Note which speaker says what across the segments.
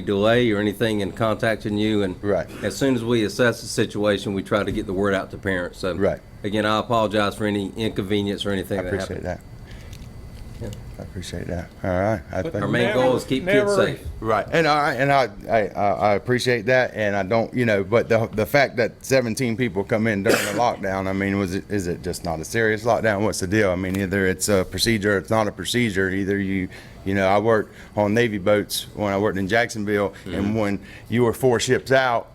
Speaker 1: delay or anything in contacting you, and
Speaker 2: Right.
Speaker 1: as soon as we assess the situation, we try to get the word out to parents. So
Speaker 2: Right.
Speaker 1: again, I apologize for any inconvenience or anything
Speaker 2: I
Speaker 1: that
Speaker 2: appreciate
Speaker 1: happened.
Speaker 2: that. I appreciate that. All right. I
Speaker 1: Our
Speaker 2: think,
Speaker 1: main goal is keep kids
Speaker 3: Never-
Speaker 1: safe.
Speaker 2: right. And I, and I, I, I I appreciate that. And I don't, you know, but the, the fact that 17 people come in during the lockdown, I mean, was it, is it just not a serious lockdown? What's the deal? I mean, either it's a procedure, or it's not a procedure. Either you, you know, I worked on Navy boats when I worked in Jacksonville
Speaker 1: Mm-hmm.
Speaker 2: and when you were four ships out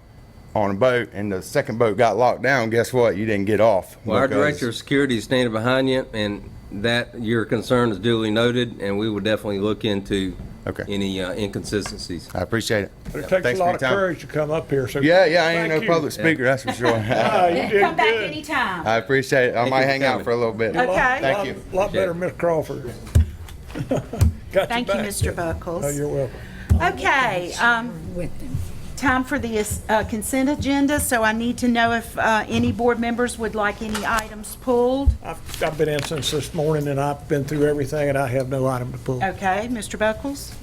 Speaker 2: on a boat and the second boat got locked down, guess what? You didn't get off.
Speaker 1: Well, our
Speaker 2: because-
Speaker 1: director of security is standing behind you, and that, your concern is duly noted, and we will definitely look into
Speaker 2: Okay.
Speaker 1: any uh, inconsistencies.
Speaker 2: I appreciate it.
Speaker 3: But it
Speaker 2: Thanks
Speaker 3: takes
Speaker 2: for
Speaker 3: a lot
Speaker 2: your
Speaker 3: of
Speaker 2: time.
Speaker 3: courage to come up here, so.
Speaker 2: Yeah, yeah, I ain't
Speaker 3: Thank
Speaker 2: no
Speaker 3: you.
Speaker 2: public speaker, that's for sure.
Speaker 3: Ah, you did
Speaker 4: Come back
Speaker 3: good.
Speaker 4: anytime.
Speaker 2: I appreciate it. I
Speaker 1: you
Speaker 2: might
Speaker 1: for
Speaker 2: hang out
Speaker 1: coming.
Speaker 2: for a little bit.
Speaker 3: Lot-
Speaker 4: Okay.
Speaker 2: Thank
Speaker 3: lot-
Speaker 2: you.
Speaker 3: Lot better, Miss Crawford. Got
Speaker 4: Thank you,
Speaker 3: back.
Speaker 4: Mr.
Speaker 3: Oh,
Speaker 4: Buckles.
Speaker 3: you're welcome.
Speaker 4: Okay, um, time for the uh, consent agenda, so I need to know if uh, any board members would like any items pulled.
Speaker 3: I've, I've been in since this morning, and I've been through everything, and I have no item to pull.
Speaker 4: Okay, Mr. Buckles?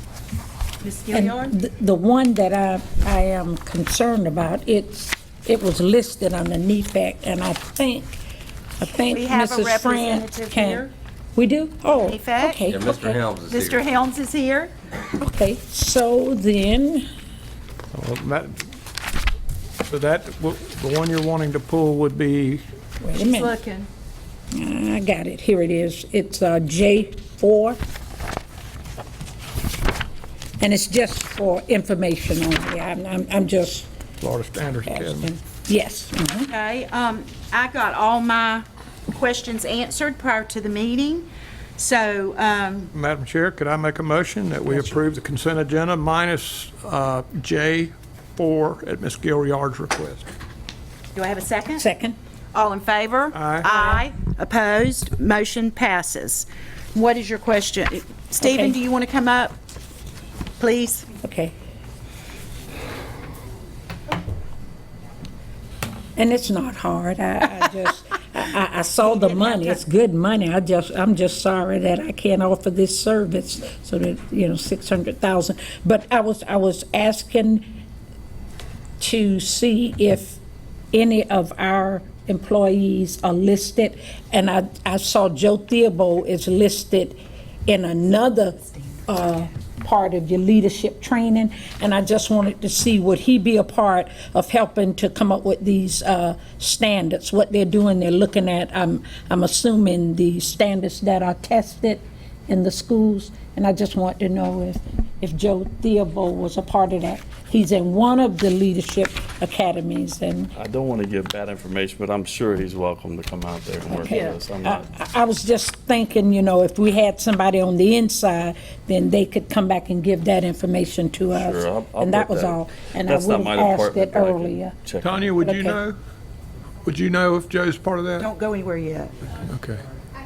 Speaker 4: Ms.
Speaker 5: And
Speaker 4: Gilliard?
Speaker 5: th- the one that I, I am concerned about, it's, it was listed on the E NEPAC, and I think, I think
Speaker 4: We have a
Speaker 5: Mrs. Friend
Speaker 4: representative
Speaker 5: can.
Speaker 4: here. E
Speaker 5: We do? Oh,
Speaker 4: NEPAC.
Speaker 5: okay.
Speaker 1: Yeah, Mr.
Speaker 5: okay,
Speaker 1: Helms is
Speaker 4: Mr.
Speaker 1: here.
Speaker 4: Helms is here.
Speaker 5: Okay, so then,
Speaker 3: Well, that- So that, w- the one you're wanting to pull would be,
Speaker 5: wait a
Speaker 4: She's
Speaker 5: minute,
Speaker 4: looking.
Speaker 5: I got it, here it is, it's uh, J4. And it's just for information only, I'm, I'm- I'm just
Speaker 3: Florida Standards Academy.
Speaker 5: asking. Yes, mhm.
Speaker 4: Okay, um, I got all my questions answered prior to the meeting, so, um,
Speaker 3: Madam Chair, could I make a motion that we approve the consent agenda minus uh, J4 at Miss Gilliard's request?
Speaker 4: do I have a second?
Speaker 5: second.
Speaker 4: All in favor?
Speaker 3: Aye.
Speaker 4: Aye. Opposed? Motion passes. What is your question? Stephen,
Speaker 5: Okay.
Speaker 4: do you want to come up? Please?
Speaker 5: Okay. And it's not hard. I, I just, I, I- I saw the money. It's good money. I just, I'm just sorry that I can't offer this service. So that, you know, six hundred thousand. But I was, I was asking to see if any of our employees are listed. And I, I saw Joe Theobald is listed in another uh, part of your leadership training. And I just wanted to see, would he be a part of helping to come up with these uh, standards? What they're doing, they're looking at, I'm, I'm assuming the standards that are tested in the schools, and I just want to know if, if Joe Theobald was a part of that. He's in one of the leadership academies, and
Speaker 6: I don't want to give bad information, but I'm sure he's welcome to come out there and work with us. I'm
Speaker 5: I,
Speaker 6: not,
Speaker 5: I- I was just thinking, you know, if we had somebody on the inside, then they could come back and give that information to
Speaker 6: sure, I'll-
Speaker 5: us.
Speaker 6: I'll
Speaker 5: And that
Speaker 6: put
Speaker 5: was all, and I
Speaker 6: that's not
Speaker 5: would
Speaker 6: my
Speaker 5: have asked
Speaker 6: department,
Speaker 5: it
Speaker 6: but I can
Speaker 5: earlier.
Speaker 6: check on it.
Speaker 3: Tanya, would
Speaker 5: Okay.
Speaker 3: you know? Would you know if Joe's part of that?
Speaker 4: Don't go anywhere yet.
Speaker 3: Okay.
Speaker 7: I, I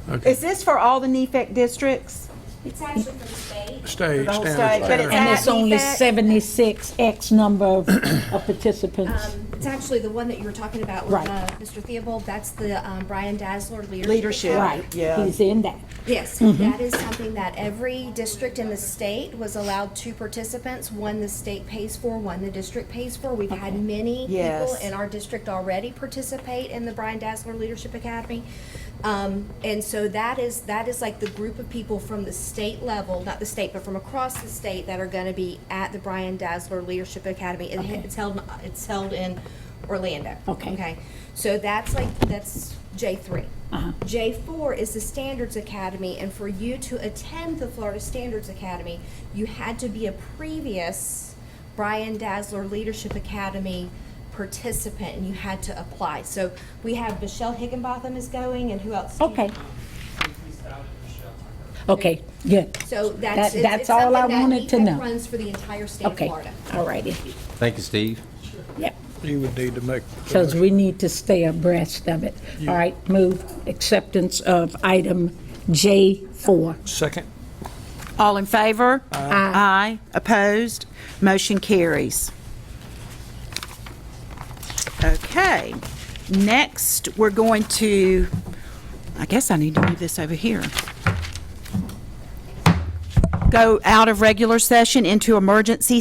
Speaker 7: can answer.
Speaker 4: Is this for all the E NEFAC districts?
Speaker 7: It's actually for the state.
Speaker 3: State,
Speaker 4: whole
Speaker 3: standards.
Speaker 4: state, but it's- E
Speaker 3: there.
Speaker 5: And it's only
Speaker 4: That-
Speaker 5: 76 X number of of participants.
Speaker 7: Um, It's actually the one that you were talking about with
Speaker 5: Right.
Speaker 7: uh, Mr. Theobald, that's the um, Brian Dazzler Leadership.
Speaker 4: Leadership.
Speaker 7: Academy.
Speaker 5: Right,
Speaker 4: Yeah.
Speaker 5: he's in that.
Speaker 7: Yes, that is something that every district in the state was allowed two participants, one the state pays for, one the district pays for. We've had many people
Speaker 4: Yes.
Speaker 7: in our district already participate in the Brian Dazzler Leadership Academy. Um, and so that is, that is like the group of people from the state level, not the state, but from across the state that are gonna be at the Brian Dazzler Leadership Academy. It- It's held, it's held in Orlando.
Speaker 5: Okay.
Speaker 7: Okay, so that's like, that's J three.
Speaker 5: Uh-huh.
Speaker 7: J four is the Standards Academy, and for you to attend the Florida Standards Academy, you had to be a previous Brian Dazzler Leadership Academy participant, and you had to apply. So we have Michelle Higginbotham is going, and who else? Steve?
Speaker 5: Okay. Okay, good.
Speaker 7: So
Speaker 5: That-
Speaker 7: that's, it's
Speaker 5: that's
Speaker 7: it's
Speaker 5: all
Speaker 7: something
Speaker 5: I
Speaker 7: that
Speaker 5: wanted to
Speaker 7: EPIC
Speaker 5: know.
Speaker 7: runs for the entire state of
Speaker 5: Okay,
Speaker 7: Florida.
Speaker 5: all righty.
Speaker 1: Thank you, Steve.
Speaker 5: Yep,
Speaker 3: You would need to make. the
Speaker 5: because
Speaker 3: motion.
Speaker 5: we need to stay abreast of it. All right, move acceptance of item J4.
Speaker 3: Second.
Speaker 4: All in favor? Aye. Opposed? Motion carries. Okay, next, we're going to, I guess I need to move this over here. go out of regular session into emergency